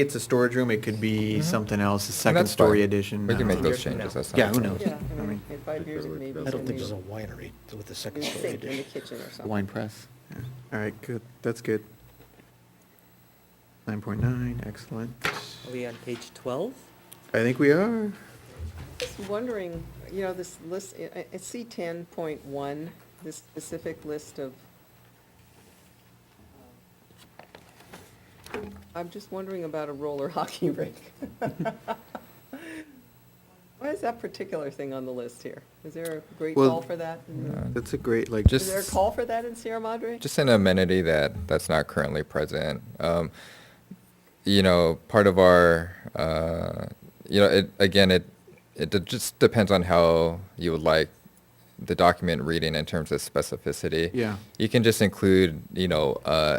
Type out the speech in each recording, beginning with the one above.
It's a storage room, it could be something else, a Mm-hmm. And second that's fine. story addition. We I can don't make know. those Year from changes. now. that's not a Yeah, who problem. knows? Yeah, I I mean, mean, in five years, it may be. I don't think there's a in winery with the the second story sink in the addition. kitchen or something. Wine press. Yeah. All right, good, that's good. 9.9, excellent. Are we on page 12? I think we are. Just wondering, you know, this list, I, I see ten point one, this specific list of. uh, I'm just wondering about a roller hockey rink. Why is that particular thing on the list here? Is there a great Well, uh, call for that? in the- Yeah. That's a great, like, Uh, Just- Is there a call for that in Sierra Madre? Just an amenity that, that's not currently present. Um, you know, part of our, uh, you know, it, again, it, it de- just depends on how you would like the document reading in terms of specificity. Yeah. You can just include, you know, uh,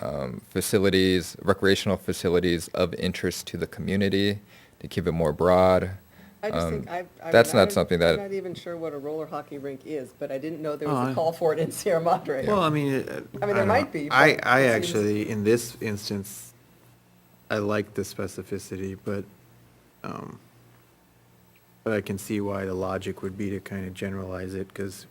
um, facilities, recreational facilities of interest to the community to keep it more broad. I just Um, think, I, I. mean, that's I not don't- something I'm that- not even sure what a roller hockey rink is, but I didn't know there Oh, was I- a call for it in Sierra Madre. Well, I mean, it- uh, I mean, there don't know. might be, I, but I it seems- actually, in this instance, I like the specificity, but, um, but I can see why the logic would be to kind of generalize it, because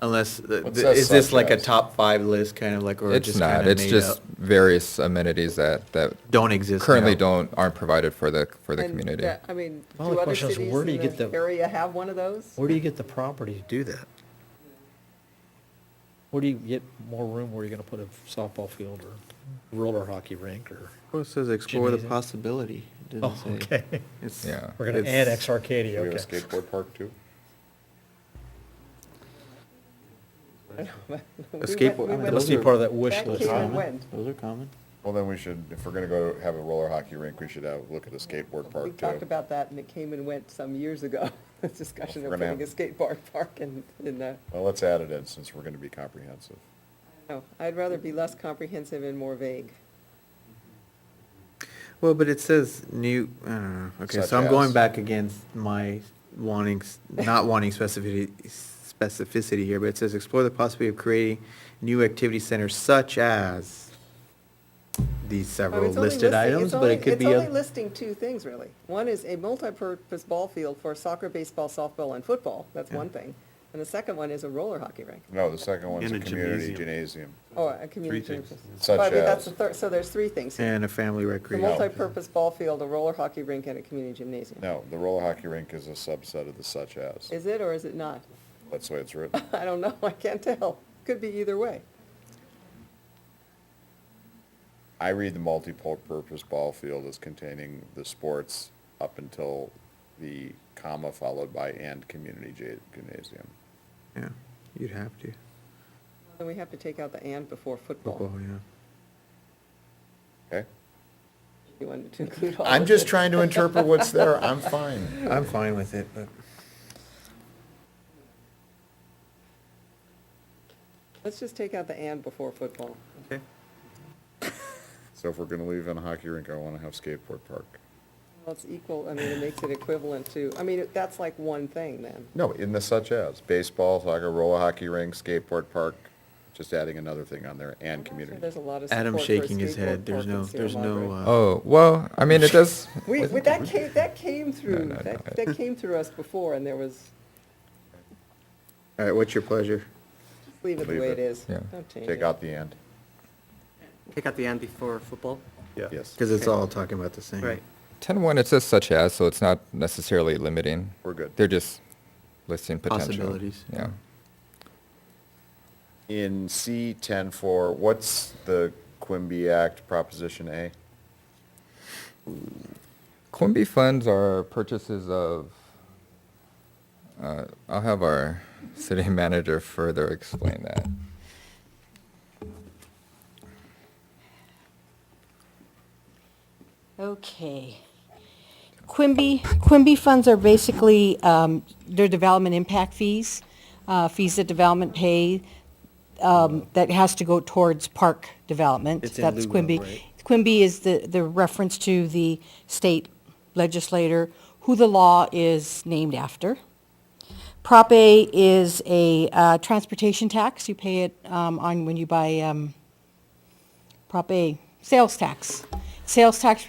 unless, the- Well, it the- says is this such like a as. top five list, kind of like, or It's just not, kind of it's made just up? various amenities that, that Don't exist currently now. don't, aren't provided for the, for the And community. that- I mean, My do only other question is, cities where do you in get the the- area have one of those? Where do you get the property to do that? Where do you get more room where you're gonna put a softball field or roller hockey rink or? Well, it says explore the Gymnasium. possibility, it Oh, didn't say. okay. It's- Yeah. We're gonna it's- annex Arcadia, okay. skateboard park too? We A went- skateboard- we I mean, went- Let's those be are- part of that wish That list. came huh? and went. Those are common. Well, then we should, if we're gonna go have a roller hockey rink, we should have, look at a skateboard We park too. talked about that and it came and went some years ago, this discussion We're of gonna putting a have- skate bar park in, in, uh, Well, let's add it in since we're gonna be comprehensive. no, I'd rather be less comprehensive and more vague. Well, but it says new, I don't know, okay, Such so I'm going as. back against my wanting, s- not wanting specificity, specificity here, but it says explore the possibility of creating new activity centers such as these I mean, several Oh, it's only listed listing- items, it's but only- it could be It's only a, listing two things, really. One is a multipurpose ball field for soccer, baseball, softball, and football, that's Yeah. one thing. And the second one is a roller hockey rink, No, the second one's a And a community gymnasium. gymnasium. or a community. things. purpose. Such But I mean, that's as- the third, so there's three things here. and a family The recreation. multipurpose ball field, a roller hockey rink, and a community gymnasium. No, the roller hockey rink is a subset of the such as. Is it or is it not? That's the way it's written. I don't know, I can't tell. Could be either way. I read the multi-purpose ball field as containing the sports up until the comma followed by and community gy- gymnasium. Yeah, you'd have to, Then we have to take out the and before football. football, yeah. Okay? You wanted to include all I'm of just it. trying to interpret what's there. I'm fine. I'm fine with it, but. Let's just take out the and before football. Okay. So if we're gonna leave in a hockey rink, I wanna have skateboard park. Well, it's equal, I mean, it makes it equivalent to, I mean, that's like one thing then. No, in the such as, baseball, soccer, roller hockey rink, skateboard park, just adding another thing on there, and community. Oh, There's a lot of support Adam for a shaking his skateboard head, there's park in no, Sierra there's no, Madre. uh, Oh, well, I mean, it does, We, we- that came, that came No, through, no, that, no. that came through us before and there was, all right, what's your pleasure? just leave it the Leave way it, it is. yeah. Don't change Take it. out the and. Take out the end before football? Yeah. Yes. Because it's Okay. all talking about the same. Right. 10-1, it says such as, so it's not necessarily limiting. We're good. They're just listing potential. Possibilities. Yeah. In C ten four, what's the Quimby Act Proposition A? Quimby funds are purchases of, uh, I'll have our city manager further explain that. Okay. Quimby, Quimby funds are basically, um, their development impact fees, uh, fees that development pay, um, that has to go towards park development. It's in lieu That's of, Quimby. right? Quimby is the, the reference to the state legislator, who the law is named after. Prop A is a, uh, transportation tax. You pay it, um, on, when you buy, um, Prop A, sales tax. Sales tax